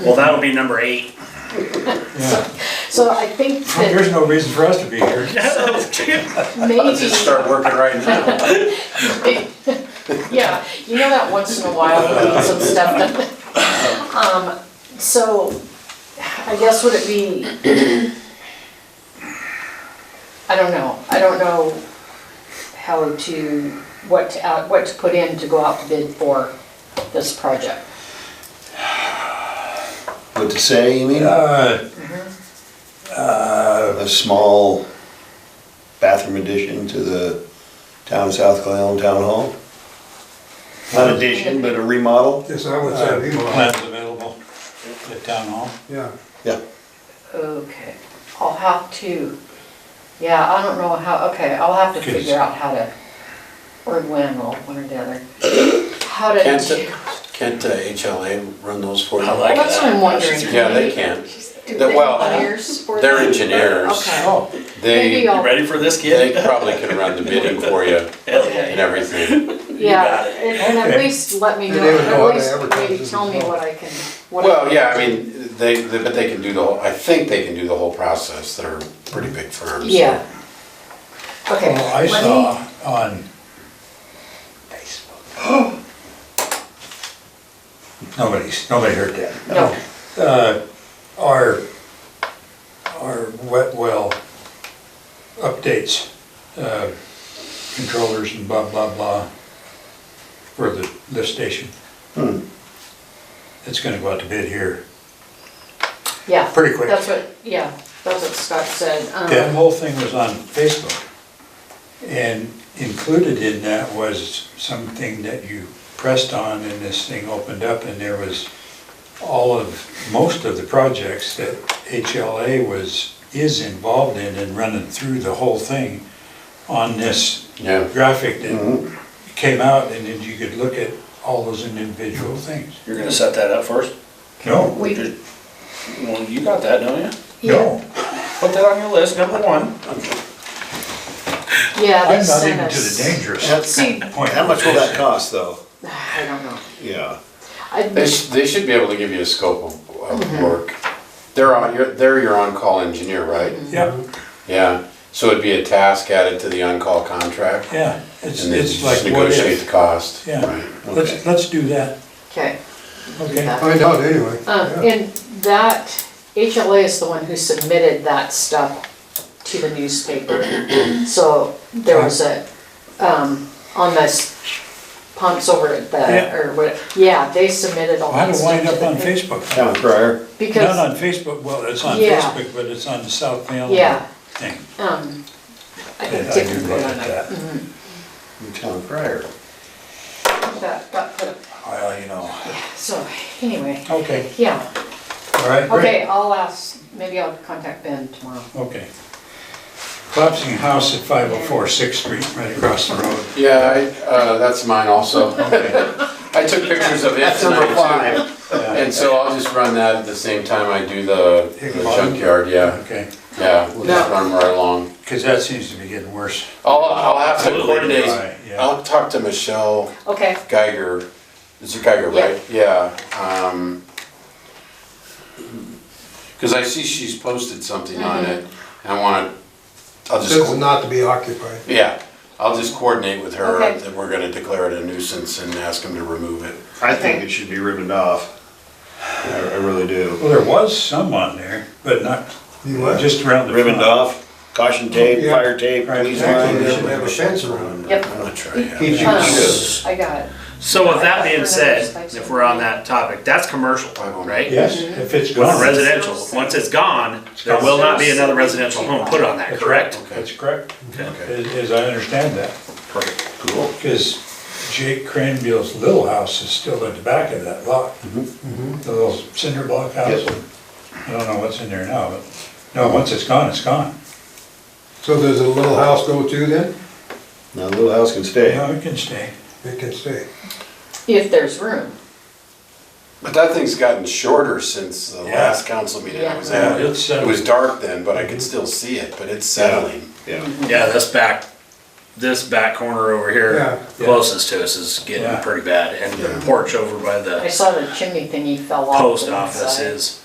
Well, that'll be number eight. Yeah, So I think that there's no reason for us to be here. maybe, working right now. yeah, you know that once in a while we need some stuff done. Um, So I guess would it be, I don't know, I don't know how to, what to, out- what to put in to go out to bid for this project. What to say, you mean? Uh, A small bathroom addition to the town of South Clallam Town Hall? Not addition, but a remodel? Yes, I would uh, say Lima, plans available at town hall. yeah. Yeah. Okay, I'll have to, yeah, I don't know how, okay, I'll have to figure out how to, or when, or one or the other. How to. Can't, the- can't uh, HLA run those for you? I like Well, Oh, That's what I'm wondering. Yeah, they can. Do They're- they well, uh, have ears for They're them? engineers. Okay. Oh, Maybe They, I'll- You ready for this, they kid? probably can run the bidding for you Hell and Oh, yeah. everything. Yeah, and and at Okay. least let me They know, would know how at to least advertise maybe this tell me as well. what I can, what. I- Well, yeah, I mean, they, they- but they can do the whole, I think they can do the whole process. They're pretty big firms. so- Yeah. Okay. well, Oh, I let me- saw on Facebook. Nobody's, nobody heard that. No, Uh, our, our wet well updates, uh, controllers and blah, blah, blah for the lift station. Hmm. It's gonna go out to bid here. yeah. Pretty quick. That's what, yeah, that's what Scott said. um, That whole thing was on Facebook. And included in that was something that you pressed on and this thing opened up and there was all of, most of the projects that HLA was, is involved in and running through the whole thing on this Yeah. Mm-hmm. graphic that came out and then you could look at all those individual things. You're gonna set that up first? No, We, Well, you got that, don't you? yeah, no, Put that on your list, number one. yeah, they I'm not sent even to us. the dangerous See, point. How much will that cost, though? I don't know. Yeah. They, I, sh- they should be able to give you a scope of, Mm-hmm. of work. They're on, you're, they're your on-call engineer, right? Mm-hmm. Yeah, Yeah, so it'd be a task added to the on-call contract. yeah, it's, And then it's just like what negotiate if. the cost. Yeah, Right. let's, okay. let's do that. okay. Okay. Find out anyway. Uh, Yeah. and that, HLA is the one who submitted that stuff to the newspaper. So there was a, um, on this pumps over at Yeah. the, or what, yeah, they submitted all How that to stuff. wind to up the on pa- Facebook? Town crier? Not Because, on Facebook, well, it's on Yeah. Facebook, but it's on the South Mail Yeah. thing. um, I And think I Dick do put look it at on that. that. Town crier. That got put up. Well, you know, So anyway, okay, yeah, all right, great. okay, I'll ask, maybe I'll contact Ben tomorrow. Okay. Collapsing house at 504 Sixth Street, right across the road. Yeah, I, uh, that's mine also. I took pictures of it That's number tonight too. five. Yeah, And so I'll just run that at the same time I do the the Bottom? junkyard, yeah, Okay, yeah, we'll just No. run right along. because that seems to be getting worse. I'll, I'll have to Absolutely. Right, coordinate, yeah. I'll talk to Michelle Okay, Geiger, is it Geiger, Yeah. right? Yeah, um, cause I see she's posted something on it, and I wanna, I'll just. This is not to be occupied. Yeah, I'll just coordinate with her Okay. that we're gonna declare it a nuisance and ask him to remove it. I think it should be ribboned off. I I really do. Well, there was some on there, but not, You what? just around the front. Ribboned off, caution tape, Yeah. fire tape, Right. police Actually, line. they should have a fence around yep, I'm gonna try it. He um, should. I got it. So with that being said, if we're on that topic, that's commercial, right? Yes, if it's Not gone. residential. Once it's gone, there will not be another residential home put on that, That's correct? right, That's correct, Okay. as as I understand that. Perfect. Cool. Because Jake Cranville's little house is still at the back of that lot. The little cinder block house. Yep. I don't know what's in there now, but, no, once it's gone, it's gone. So does a little house go too then? Now, the little house can stay. No, it can stay. It can stay. If there's room, But that thing's gotten shorter since the Yeah. last council meeting I was Yeah, at. it's, uh, It was dark then, but I could still see it, but it's settling. Yeah. Yeah, that's back this back corner over Yeah. here closest to us is Yeah. getting pretty bad. And the porch over by I the saw the chimney thingy fell off. post the office inside. is